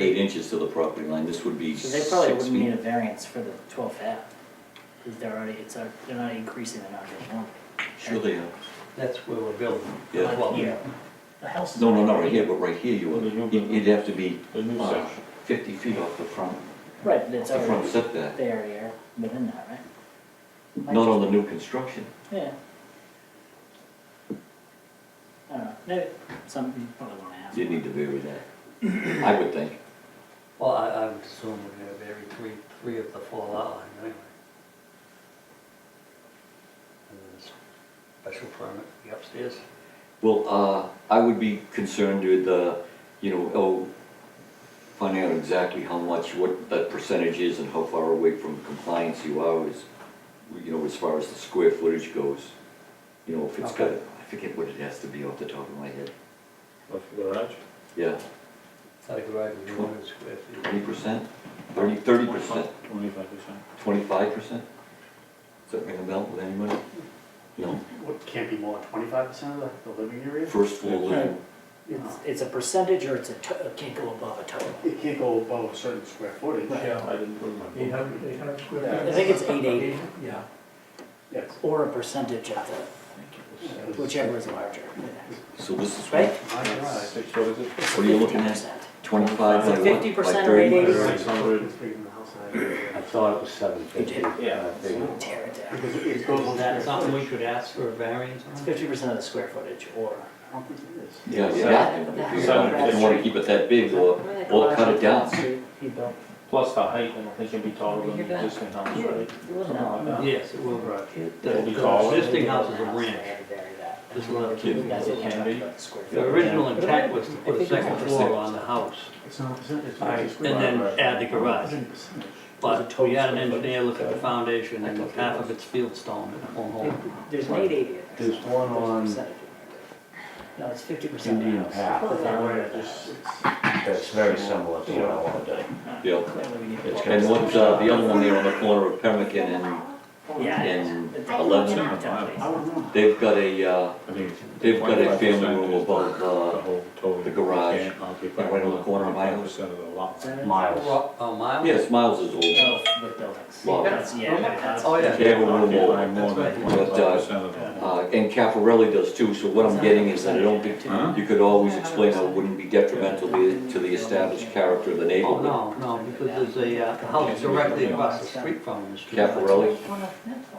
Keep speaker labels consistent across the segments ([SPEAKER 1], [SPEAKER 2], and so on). [SPEAKER 1] eight inches to the property line, this would be
[SPEAKER 2] So they probably
[SPEAKER 1] six
[SPEAKER 2] wouldn't need
[SPEAKER 1] feet.
[SPEAKER 2] a variance for the twelve F, because they're already, it's, a- they're not increasing, they're not getting more.
[SPEAKER 1] Sure they are,
[SPEAKER 3] That's where we're building.
[SPEAKER 1] yeah.
[SPEAKER 3] Well,
[SPEAKER 2] Here, the house is.
[SPEAKER 1] No, no,
[SPEAKER 2] already
[SPEAKER 1] not right here,
[SPEAKER 2] here.
[SPEAKER 1] but right here you would,
[SPEAKER 4] Mhm.
[SPEAKER 1] It- it'd have to be
[SPEAKER 4] The new
[SPEAKER 1] uh,
[SPEAKER 4] section.
[SPEAKER 1] fifty feet off the front,
[SPEAKER 2] Right,
[SPEAKER 1] off
[SPEAKER 2] but it's
[SPEAKER 1] the front
[SPEAKER 2] already
[SPEAKER 1] setback,
[SPEAKER 2] there here, within that, right?
[SPEAKER 1] not on the new construction.
[SPEAKER 2] Yeah. I don't know, maybe, some, you probably wanna ask.
[SPEAKER 1] You need to vary that, I would think.
[SPEAKER 3] Well, I, I would assume we're gonna vary three, three of the four lot line anyway. And then it's Special permit for the upstairs.
[SPEAKER 1] Well, uh, I would be concerned with, uh, you know, oh, finding out exactly how much, what that percentage is and how far away from compliance you are is, you know, as far as the square footage goes. You know, if it's got, I forget what it has to be off the top of my head,
[SPEAKER 4] Off the garage?
[SPEAKER 1] yeah,
[SPEAKER 3] It's like a right of the owner's square
[SPEAKER 1] twenty
[SPEAKER 3] feet.
[SPEAKER 1] percent, thirty, thirty percent,
[SPEAKER 4] Twenty-five percent.
[SPEAKER 1] twenty-five percent? Does that ring a bell with anybody? No,
[SPEAKER 5] What, can't be more than twenty-five percent of the, the living area?
[SPEAKER 1] first floor living,
[SPEAKER 2] It's, it's a percentage or it's a, to- it can't go above a total.
[SPEAKER 5] It can't go above a certain square footage.
[SPEAKER 4] Yeah, I didn't put my.
[SPEAKER 6] Eight hundred, eight hundred
[SPEAKER 5] Yeah.
[SPEAKER 6] square
[SPEAKER 2] I
[SPEAKER 6] feet.
[SPEAKER 2] think it's eight eighty,
[SPEAKER 6] Yeah.
[SPEAKER 5] Yes.
[SPEAKER 2] or a percentage of the, whichever is larger,
[SPEAKER 1] so this is,
[SPEAKER 2] right?
[SPEAKER 1] what
[SPEAKER 5] My God.
[SPEAKER 4] Six, what is it?
[SPEAKER 1] What are you looking at?
[SPEAKER 2] 50%.
[SPEAKER 1] twenty-five by what, by thirty?
[SPEAKER 2] 50% or 80?
[SPEAKER 4] Six hundred.
[SPEAKER 5] It's bigger than the house I live
[SPEAKER 7] I
[SPEAKER 5] in.
[SPEAKER 7] thought it was seven fifty.
[SPEAKER 4] Yeah.
[SPEAKER 2] Tear it down.
[SPEAKER 5] Because it goes on
[SPEAKER 3] That's
[SPEAKER 5] that, I
[SPEAKER 3] something we could ask for a variance
[SPEAKER 2] It's
[SPEAKER 3] on?
[SPEAKER 2] fifty percent of the square footage, or,
[SPEAKER 5] don't think it is.
[SPEAKER 1] Yeah,
[SPEAKER 4] Seven.
[SPEAKER 1] yeah,
[SPEAKER 2] Yeah.
[SPEAKER 1] if you didn't wanna keep it that big, or, or cut it down.
[SPEAKER 2] he built.
[SPEAKER 4] Plus the height, I don't think it'd be taller than the existing house,
[SPEAKER 2] Yeah,
[SPEAKER 4] right?
[SPEAKER 2] no,
[SPEAKER 4] No.
[SPEAKER 3] Yes, it will. The
[SPEAKER 4] It'll be
[SPEAKER 3] the
[SPEAKER 4] taller.
[SPEAKER 3] existing house is a
[SPEAKER 2] I
[SPEAKER 3] ranch.
[SPEAKER 2] had to bury that.
[SPEAKER 3] This lot.
[SPEAKER 1] Kid.
[SPEAKER 2] That's what
[SPEAKER 4] Can be.
[SPEAKER 2] came up with square
[SPEAKER 3] The
[SPEAKER 2] footage.
[SPEAKER 3] original intent was to
[SPEAKER 2] I
[SPEAKER 3] put a
[SPEAKER 2] think it's
[SPEAKER 3] second
[SPEAKER 2] a
[SPEAKER 3] floor
[SPEAKER 4] percentage.
[SPEAKER 3] on the house
[SPEAKER 5] It's not a percent, it's
[SPEAKER 4] Alright,
[SPEAKER 5] not a
[SPEAKER 4] and
[SPEAKER 5] square.
[SPEAKER 3] and then add the garage.
[SPEAKER 5] It's a percentage.
[SPEAKER 3] But we had an engineer look at the foundation and half of it's field stone and it won't hold.
[SPEAKER 2] There's an eight eighty in there.
[SPEAKER 7] There's one
[SPEAKER 2] There's a
[SPEAKER 7] on
[SPEAKER 2] percentage in there. No, it's fifty percent.
[SPEAKER 7] Indian Path. That's very similar to what I want to do.
[SPEAKER 1] Yeah,
[SPEAKER 7] It's
[SPEAKER 1] and what's, uh, the other one there on the corner of Pemmican and,
[SPEAKER 2] Yeah.
[SPEAKER 1] and
[SPEAKER 2] It's-
[SPEAKER 1] Eleven,
[SPEAKER 2] it's not
[SPEAKER 5] I
[SPEAKER 2] tough.
[SPEAKER 5] don't know.
[SPEAKER 1] they've got a, uh,
[SPEAKER 4] I think it's-
[SPEAKER 1] They've got a
[SPEAKER 4] 25%
[SPEAKER 1] family room
[SPEAKER 4] is the-
[SPEAKER 1] above, uh,
[SPEAKER 4] the whole total.
[SPEAKER 1] the garage,
[SPEAKER 4] You can't occupy
[SPEAKER 1] right on the corner of my house.
[SPEAKER 4] 25% of the lot.
[SPEAKER 7] Miles.
[SPEAKER 3] A mile?
[SPEAKER 1] yes, Miles is old.
[SPEAKER 2] Oh, with buildings.
[SPEAKER 1] Well,
[SPEAKER 2] That's- yeah, that's-
[SPEAKER 3] Oh, yeah.
[SPEAKER 1] They have a room
[SPEAKER 4] Occupy
[SPEAKER 1] over,
[SPEAKER 4] more than
[SPEAKER 1] But, uh,
[SPEAKER 4] 25% of the.
[SPEAKER 1] uh, and Cafarelli does too, so what I'm getting is that I don't think,
[SPEAKER 4] Huh?
[SPEAKER 1] you could always explain how it wouldn't be detrimental to the- to the established character of the
[SPEAKER 3] Oh,
[SPEAKER 1] neighborhood.
[SPEAKER 3] no, no, because there's a uh, house directly across the street from this.
[SPEAKER 1] Cafarelli,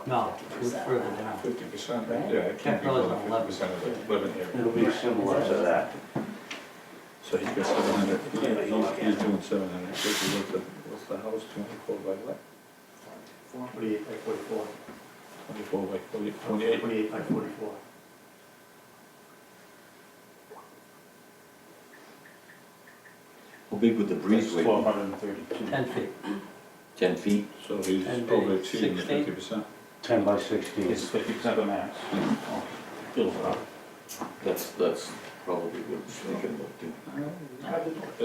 [SPEAKER 3] No, it's further down.
[SPEAKER 4] Fifty percent, yeah, it can't be
[SPEAKER 3] Capital
[SPEAKER 4] more
[SPEAKER 3] is
[SPEAKER 4] than fifty
[SPEAKER 3] eleven.
[SPEAKER 4] percent of the living area.
[SPEAKER 7] It'll be similar to that.
[SPEAKER 4] So he's got seven hundred, he's, he's doing seven hundred fifty, what's the, what's the house, twenty-four by what?
[SPEAKER 5] Forty-eight by forty-four,
[SPEAKER 4] Twenty-four by forty, twenty-eight,
[SPEAKER 5] forty-eight by forty-four.
[SPEAKER 1] how big would the
[SPEAKER 4] twelve
[SPEAKER 1] breezeway
[SPEAKER 4] hundred and thirty-two.
[SPEAKER 3] Ten feet.
[SPEAKER 1] be? Ten feet?
[SPEAKER 4] So he's
[SPEAKER 3] And
[SPEAKER 4] over
[SPEAKER 3] the
[SPEAKER 4] exceeding the
[SPEAKER 3] 16?
[SPEAKER 4] fifty percent.
[SPEAKER 7] Ten by sixteen.
[SPEAKER 4] It's fifty percent of the max. Feels about.
[SPEAKER 1] That's, that's probably what it's thinking about too.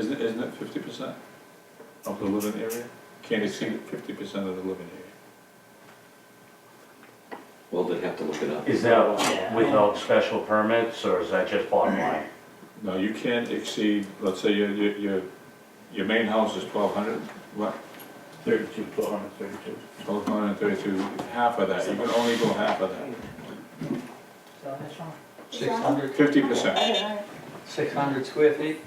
[SPEAKER 4] Isn't, it- isn't it fifty percent of the living area? Can't exceed fifty percent of the living area.
[SPEAKER 1] Well, they'd have to look it up.
[SPEAKER 7] Is that without special permits or is that just bottom line?
[SPEAKER 4] No, you can't exceed, let's say your, your, your, your main house is twelve hundred, what?
[SPEAKER 5] Thirty-two, twelve hundred thirty-two.
[SPEAKER 4] Twelve hundred and thirty-two, half of that, you can only go half of that.
[SPEAKER 2] So that's wrong.
[SPEAKER 3] Six hundred,
[SPEAKER 4] Fifty percent.
[SPEAKER 3] six hundred square feet?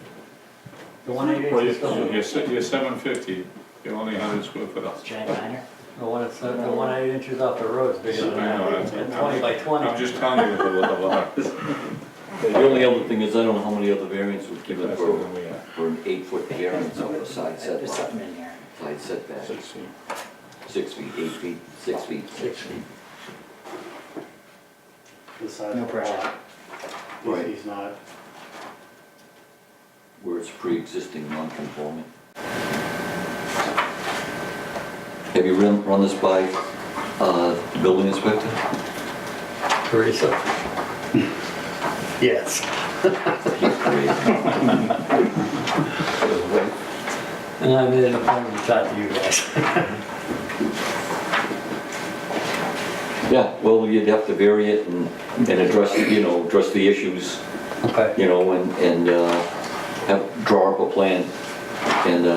[SPEAKER 3] The one eighty
[SPEAKER 4] Well,
[SPEAKER 3] is
[SPEAKER 4] you're,
[SPEAKER 3] still,
[SPEAKER 4] you're se- you're seven fifty, you're only hundred square foot up.
[SPEAKER 2] Giant diner.
[SPEAKER 3] the one that's, the one eight inches off the road is bigger than
[SPEAKER 4] I know,
[SPEAKER 3] that.
[SPEAKER 4] that's-
[SPEAKER 3] And Twenty by
[SPEAKER 4] I'm
[SPEAKER 3] twenty.
[SPEAKER 4] just telling you what the what the lot is.
[SPEAKER 1] The only other thing is, I don't know how many other variants would give it
[SPEAKER 4] That's
[SPEAKER 1] for,
[SPEAKER 4] what we are.
[SPEAKER 1] for an eight-foot variance on a side
[SPEAKER 2] There's
[SPEAKER 1] setback,
[SPEAKER 2] something in here.
[SPEAKER 1] side setback,
[SPEAKER 4] Six feet.
[SPEAKER 1] six feet, eight feet, six feet.
[SPEAKER 3] Six feet.
[SPEAKER 5] The size
[SPEAKER 2] No
[SPEAKER 5] of the
[SPEAKER 2] pressure.
[SPEAKER 5] lot.
[SPEAKER 1] Right.
[SPEAKER 5] He's not,
[SPEAKER 1] where it's pre-existing non-conforming. Have you run, run this by, uh, the building inspector?
[SPEAKER 3] Teresa? Yes. And I made an appointment to talk to you guys.
[SPEAKER 1] Yeah, well, you'd have to vary it and, and address, you know, address the issues,
[SPEAKER 3] Okay.
[SPEAKER 1] you know, and, and, uh, have, draw up a plan. And, uh,